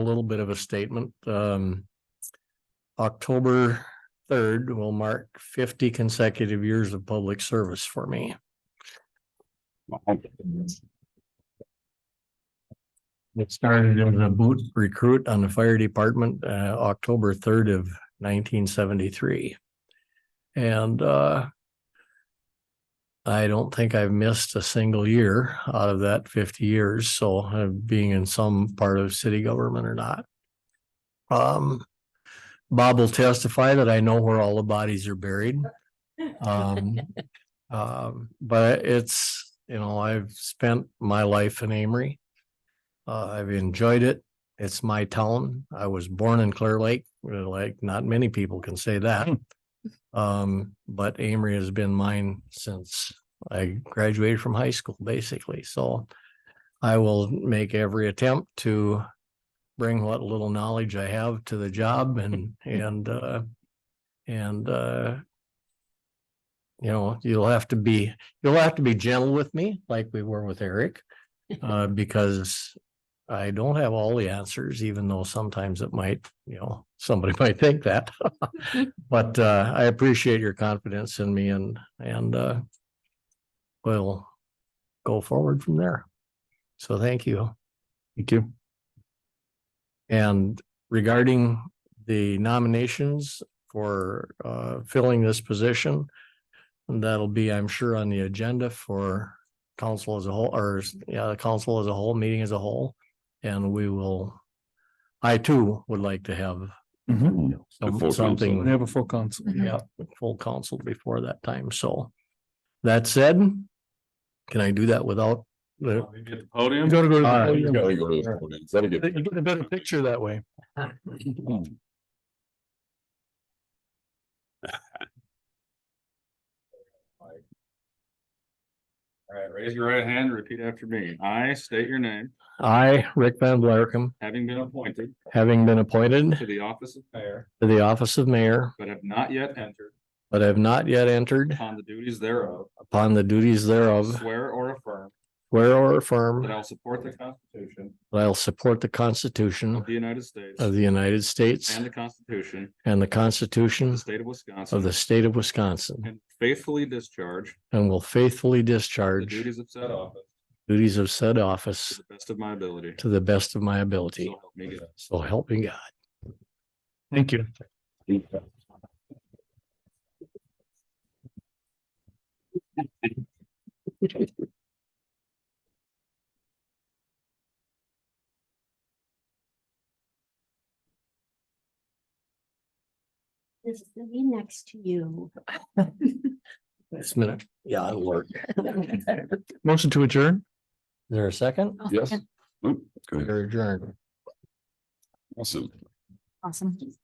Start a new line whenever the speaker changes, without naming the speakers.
a little bit of a statement. Um, October third will mark fifty consecutive years of public service for me. It started as a boot recruit on the fire department, uh, October third of nineteen seventy-three. And, uh, I don't think I've missed a single year out of that fifty years, so uh, being in some part of city government or not. Um, Bob will testify that I know where all the bodies are buried. Um, um, but it's, you know, I've spent my life in Amory. Uh, I've enjoyed it. It's my town. I was born in Clear Lake, uh, like not many people can say that. Um, but Amory has been mine since I graduated from high school, basically, so. I will make every attempt to bring what little knowledge I have to the job and, and, uh. And, uh. You know, you'll have to be, you'll have to be gentle with me, like we were with Eric. Uh, because I don't have all the answers, even though sometimes it might, you know, somebody might think that. But uh, I appreciate your confidence in me and, and uh, we'll go forward from there. So thank you. Thank you. And regarding the nominations for uh, filling this position, that'll be, I'm sure, on the agenda for council as a whole, or yeah, the council as a whole, meeting as a whole. And we will, I too would like to have some-
The Mm. full council.
something.
We have a full council.
Yeah, with full council before that time, so. That said, can I do that without? the-
You get the
You
podium?
gotta go to.
All right.
the-
You gotta go to the podium. That'll
You
get- Mm.
get a better picture that way.
All right, raise your right hand and repeat after me. I state your name,
I, Rick Van Blarkum,
having been appointed
having been appointed
to the office of mayor,
to the office of mayor,
but have not yet entered
but have not yet entered
upon the duties thereof,
upon the duties thereof,
swear or affirm
swear or
that
affirm
I will support the Constitution
that I'll support the Constitution
of the United States
of the United States
and the Constitution
and the
of
Constitution
the state of
of
Wisconsin,
the state of Wisconsin,
and faithfully discharge
and will faithfully
the
discharge
duties of said office
duties of said
to
office
the best of my ability.
to the best of my
So
ability.
help me God.
So help me God.
Thank you.
This is the me next to you. Oh,
This minute, yeah, it'll work. Is
Motion to adjourn?
there a second?
Yes. Oop, Go ahead.
You're adjourned.
Awesome.
Awesome.